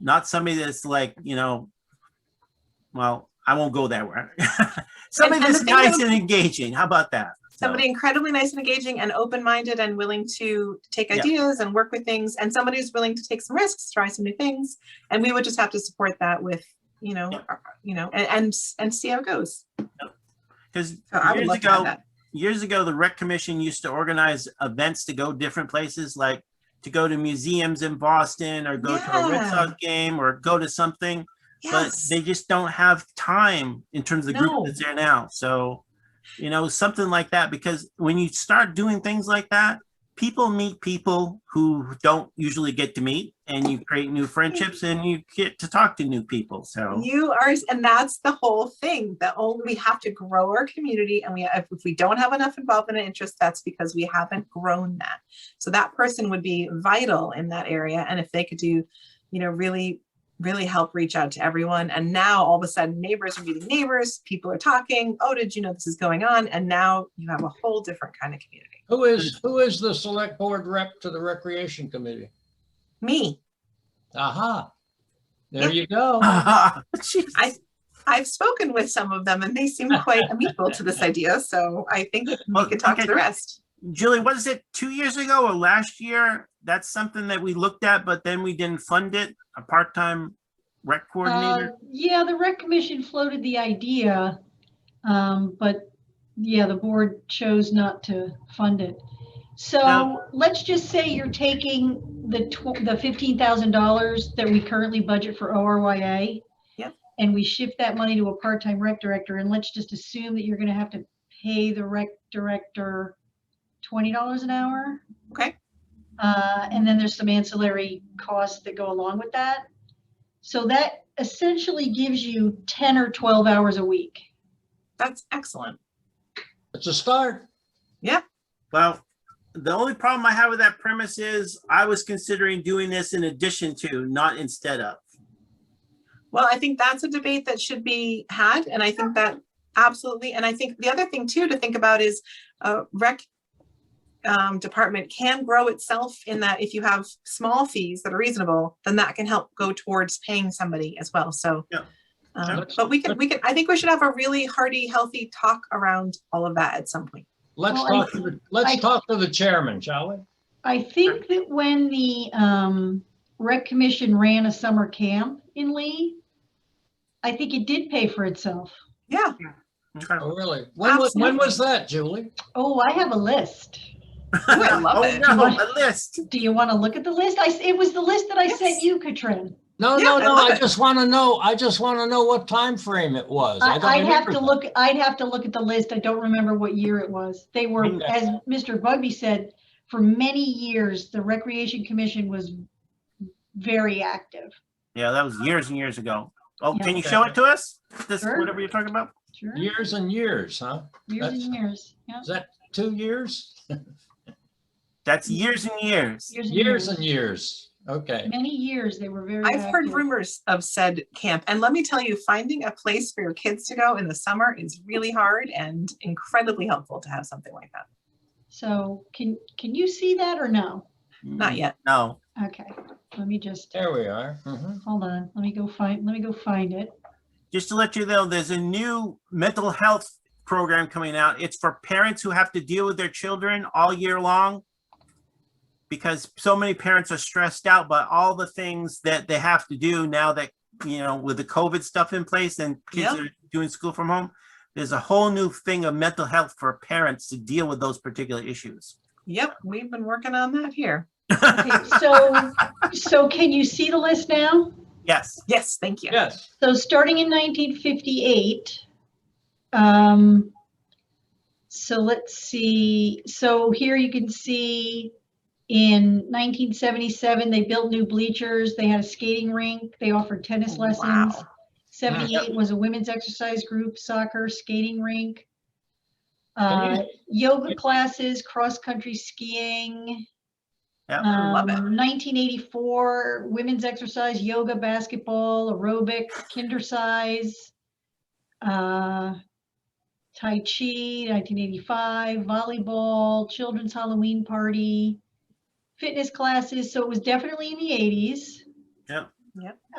not somebody that's like, you know, well, I won't go that way. somebody And- and that's the thing nice is- and engaging. How about that? So, somebody incredibly nice and engaging and open-minded and willing to take Yeah. ideas and work with things and somebody who's willing to take some risks try some new things and we would just have to support that with you know Yeah. our- you know and and, and see how it goes Because so i would years love to have ago, that years ago, the rec commission used to organize events to go different places, like to go to museums in Boston or go to a Red Yeah. Sox game or go to something. but yes they just don't have time in terms of the No. group that's there now. So, you know, something like that, because when you start doing things like that, people meet people who don't usually get to meet and you create new friendships and you get to talk to new people. So, you are and that's the whole thing the only we have to grow our community and we if if we don't have enough involvement and interest that's because we haven't grown that so that person would be vital in that area and if they could do you know really really help reach out to everyone and now all of a sudden neighbors are meeting neighbors people are talking oh did you know this is going on and now you have a whole different kind of community Who is, who is the select board rep to the recreation committee? me Aha. There you go. Jeez. i've spoken with some of them and they seem quite amenable to this idea so i think we Well, can talk to okay. the rest Julie, was it two years ago or last year? That's something that we looked at, but then we didn't fund it, a part-time rec coordinator. Uh, Yeah, the rec commission floated the idea, um, but yeah, the board chose not to fund it. So Now- let's just say you're taking the tw- the fifteen thousand dollars that we currently budget for ORYA. Yep. And we shift that money to a part-time rec director, and let's just assume that you're gonna have to pay the rec director twenty dollars an hour. Okay. Uh, and then there's some ancillary costs that go along with that. So that essentially gives you 10 or 12 hours a week. that's excellent It's a start. Well, the only problem I have with that premise is I was considering doing this in addition to, not instead of. Well, I think that's a debate that should be had, and I think that absolutely, and I think the other thing too to think about is uh rec um, department can grow itself in that if you have small fees that are reasonable, then that can help go towards paying somebody as well, so. Yeah. Um, Yeah. but we can, we can, I think we should have a really hearty, healthy talk around all of that at some point. Let's Well, I- talk, to the let's I- talk to the chairman, shall we? I think that when the um, rec commission ran a summer camp in Lee, I think it did pay for itself. Yeah, Okay. Oh, really? When was, when was that, Julie? Oh, I have a list. I love Oh, it. no, a list. Do you want to look at the list? I, s- it was the list that I Yes. sent you, Katrin. No, Yeah, no, I no, love I it. just want to know, I just want to know what time frame it was. I- don't I'd have remember to that. look, I'd have to look at the list. I don't remember what year it was. They were, Okay. as Mr. Bugby said, for many years, the Recreation Commission was very active. Yeah, that was years and years ago. Oh, Yeah. can you show it to us? This, Sure. whatever you're talking about? Sure. Years and years, huh? Years That's- and years, yeah. Is that two years? That's years and years. Years and years. Okay. Many years, they were very I've heard active. rumors of said camp, and let me tell you, finding a place for your kids to go in the summer is really hard and incredibly helpful to have something like that. So can, can you see that or no? Mm. Not yet. No, Okay, let me just, There we are. Mhm. hold on, let me go find, let me go find it. just to let you know, there's a new mental health program coming out. It's for parents who have to deal with their children all year long. Because so many parents are stressed out by all the things that they have to do now that, you know, with the COVID stuff in place and kids Yep. are doing school from home. There's a whole new thing of mental health for parents to deal with those particular issues. Yep, we've been working on that here. Okay, so, so can you see the list now? Yes, Yes, thank you. Yes. So starting in 1958, um, so let's see, so here you can see in 1977, they built new bleachers, they had a skating rink, they offered tennis lessons. Oh, Wow. 78 was a women's exercise group, soccer, skating rink. Can you- Uh, yoga classes, cross-country skiing. Yeah, I love it. Um, 1984, women's exercise, yoga, basketball, aerobic, kinder size, uh, tai chi, 1985, volleyball, children's Halloween party, fitness classes. So it was definitely in the 80s.